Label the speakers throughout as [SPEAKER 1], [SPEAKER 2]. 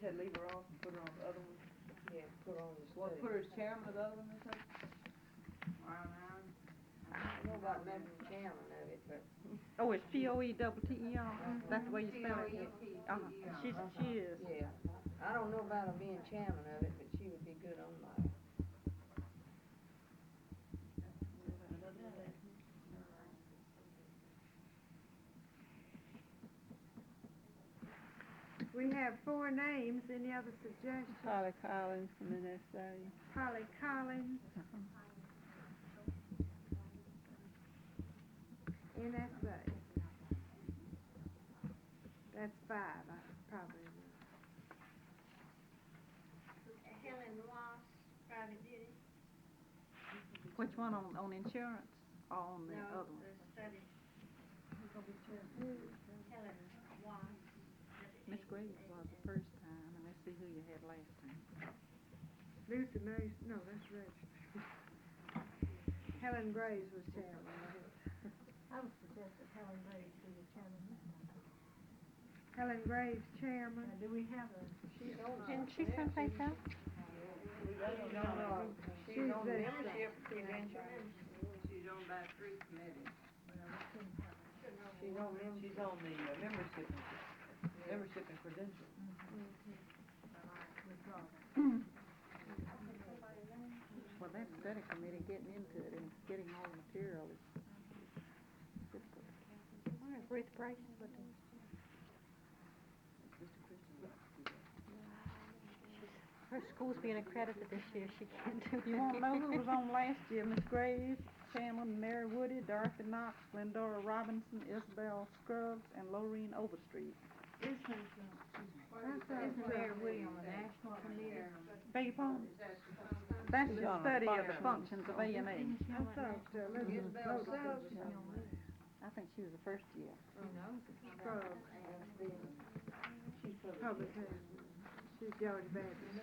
[SPEAKER 1] said leave her off and put her on the other one?
[SPEAKER 2] Yeah, put on the
[SPEAKER 1] Well, put her as chairman of the other one or something?
[SPEAKER 2] I don't know about member of chairman of it, but
[SPEAKER 3] Oh, it's P-O-E-double-T-E-R, E that's the way you spell it? Uh-huh, she's, she is.
[SPEAKER 2] yeah. I don't know about her being chairman of it, but she would be good on that.
[SPEAKER 4] We have four names, any other suggestions?
[SPEAKER 3] Holly Collins from NSA.
[SPEAKER 4] Polly Collins. NSA. That's five, I probably. know.
[SPEAKER 5] Helen Ross, private duty,
[SPEAKER 3] Which one on, on insurance or on the
[SPEAKER 5] no,
[SPEAKER 3] other one?
[SPEAKER 5] the study. Helen Ross.
[SPEAKER 3] Miss Graves was the first time, and let's see who you had last time.
[SPEAKER 4] Lucy Mays, no, that's Reg. Helen Graves was chairman.
[SPEAKER 5] I would suggest that Helen Graves be the chairman.
[SPEAKER 4] Helen Graves, chairman.
[SPEAKER 5] do we have a?
[SPEAKER 2] She's on.
[SPEAKER 3] Didn't she someplace else?
[SPEAKER 2] She's on, uh, she's
[SPEAKER 4] She's
[SPEAKER 2] on
[SPEAKER 4] the-
[SPEAKER 2] membership convention.
[SPEAKER 1] She's on by three committees.
[SPEAKER 2] She's on membership.
[SPEAKER 1] She's on the uh, membership, membership and credentials.
[SPEAKER 3] Well, that study committee getting into it and getting all the material is difficult. Where is Ruth Price?
[SPEAKER 1] Mr. Christian likes to do that.
[SPEAKER 6] Her school's being accredited this year, she can't do it.
[SPEAKER 3] You want to know who was on last year? Miss Graves, Shanlon, Mary Woody, Dorothy Knox, Glendora Robinson, Isabel Scruggs, and Loreen Overstreet.
[SPEAKER 4] That's
[SPEAKER 2] That's
[SPEAKER 4] a-
[SPEAKER 2] Mayor William, the national committee.
[SPEAKER 3] Beg your pardon? That's the
[SPEAKER 1] Isabel
[SPEAKER 3] study of the
[SPEAKER 1] Scruggs.
[SPEAKER 3] functions of A and A.
[SPEAKER 4] I thought, uh, Elizabeth
[SPEAKER 2] Isabel
[SPEAKER 4] Boat
[SPEAKER 2] Scruggs.
[SPEAKER 4] was on it.
[SPEAKER 3] I think she was the first year.
[SPEAKER 4] Scruggs,
[SPEAKER 2] She's public.
[SPEAKER 4] public health. She's Georgia Baptist.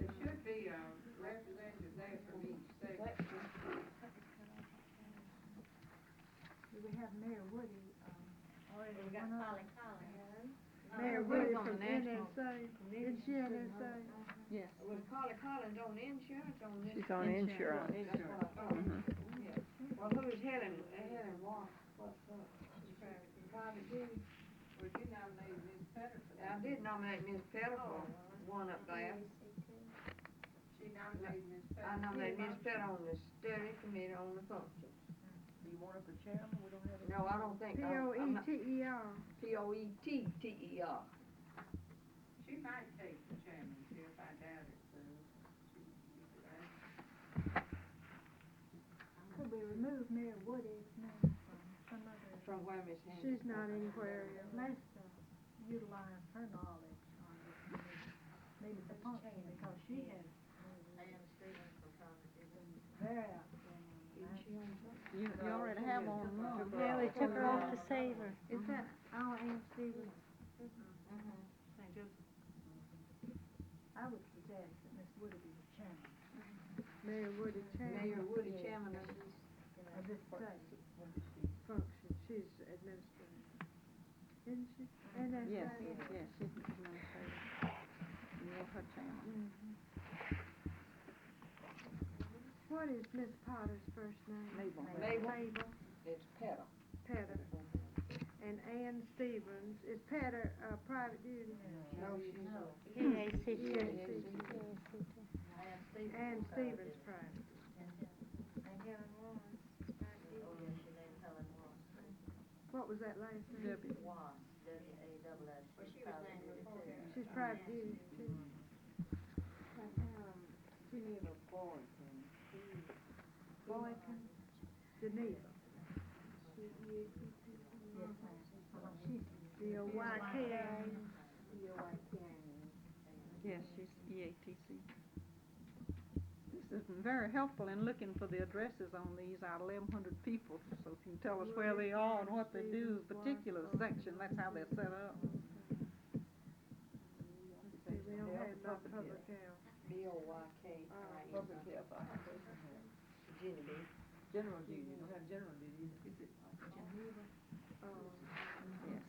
[SPEAKER 1] There should be a representative there from each state.
[SPEAKER 4] We have Mayor Woody.
[SPEAKER 5] We got Polly Collins.
[SPEAKER 2] Mayor
[SPEAKER 4] Mayor
[SPEAKER 2] Woody
[SPEAKER 4] Woody
[SPEAKER 2] on
[SPEAKER 4] from
[SPEAKER 2] the national
[SPEAKER 4] NSA.
[SPEAKER 2] committee.
[SPEAKER 4] Is she NSA?
[SPEAKER 3] Yes.
[SPEAKER 2] Was Polly Collins on insurance on this?
[SPEAKER 6] She's on insurance.
[SPEAKER 2] That's what I thought. Yeah. Well, who is Helen, Helen Ross, what's up? Private duty.
[SPEAKER 1] Well, you nominated Ms. Patterson.
[SPEAKER 2] I did nominate Ms. Pettiford, one up there.
[SPEAKER 1] She nominated Ms.
[SPEAKER 2] I
[SPEAKER 1] Patterson.
[SPEAKER 2] nominated Ms. Pettiford on the study committee on the function.
[SPEAKER 1] Do you want her for chairman? We don't have a.
[SPEAKER 2] No, I don't think,
[SPEAKER 4] P
[SPEAKER 2] I'm,
[SPEAKER 4] O
[SPEAKER 2] I'm
[SPEAKER 4] E
[SPEAKER 2] not,
[SPEAKER 4] T E R.
[SPEAKER 2] P O E T T E R.
[SPEAKER 1] She might take the chairmanship, I doubt it, so. she-
[SPEAKER 4] Could we remove Mayor Woody's name from some other,
[SPEAKER 2] From where Ms. Hanson?
[SPEAKER 4] she's not anywhere else.
[SPEAKER 7] Let's uh, utilize her knowledge on this, committee, maybe the function, because she has very outstanding.
[SPEAKER 2] Isn't she on top?
[SPEAKER 3] You, you already have one now.
[SPEAKER 6] Yeah, they took her off to save her.
[SPEAKER 4] Is that our Ann Stevens?
[SPEAKER 2] Mm-hmm.
[SPEAKER 7] I would suggest that Ms. Woody be the chairman
[SPEAKER 4] Mayor Woody Chan
[SPEAKER 2] Mayor Woody, chairman of
[SPEAKER 7] of this study.
[SPEAKER 4] function, she's administrative. Isn't she? NSA?
[SPEAKER 3] Yes, yes, she's the administrator. Yeah, her chairman.
[SPEAKER 4] What is Miss Potter's first name?
[SPEAKER 3] Mabel.
[SPEAKER 2] Mabel.
[SPEAKER 4] Mabel
[SPEAKER 2] It's Petter.
[SPEAKER 4] Petter. And Ann Stevens. Is Petter, uh, private duty?
[SPEAKER 2] No, she's not.
[SPEAKER 6] EACT.
[SPEAKER 4] Yes, Ann Stevens private. What was that last name?
[SPEAKER 3] Debbie.
[SPEAKER 5] Well, she was named before.
[SPEAKER 4] She's private duty too.
[SPEAKER 1] She need a board, then.
[SPEAKER 4] Boykin, Geneva. D O Y K A.
[SPEAKER 3] Yes, she's E EATC. This has been very helpful in looking for the addresses on these, our eleven hundred people, so if you can tell us where they are and what they do, particular section, that's how they're set up.
[SPEAKER 4] See, we don't have no public health.
[SPEAKER 2] B O Y K I N.
[SPEAKER 1] Public health, I don't think we have.
[SPEAKER 2] Genevieve.
[SPEAKER 1] General duty, you don't have general duty either.
[SPEAKER 4] Oh,
[SPEAKER 3] Yeah,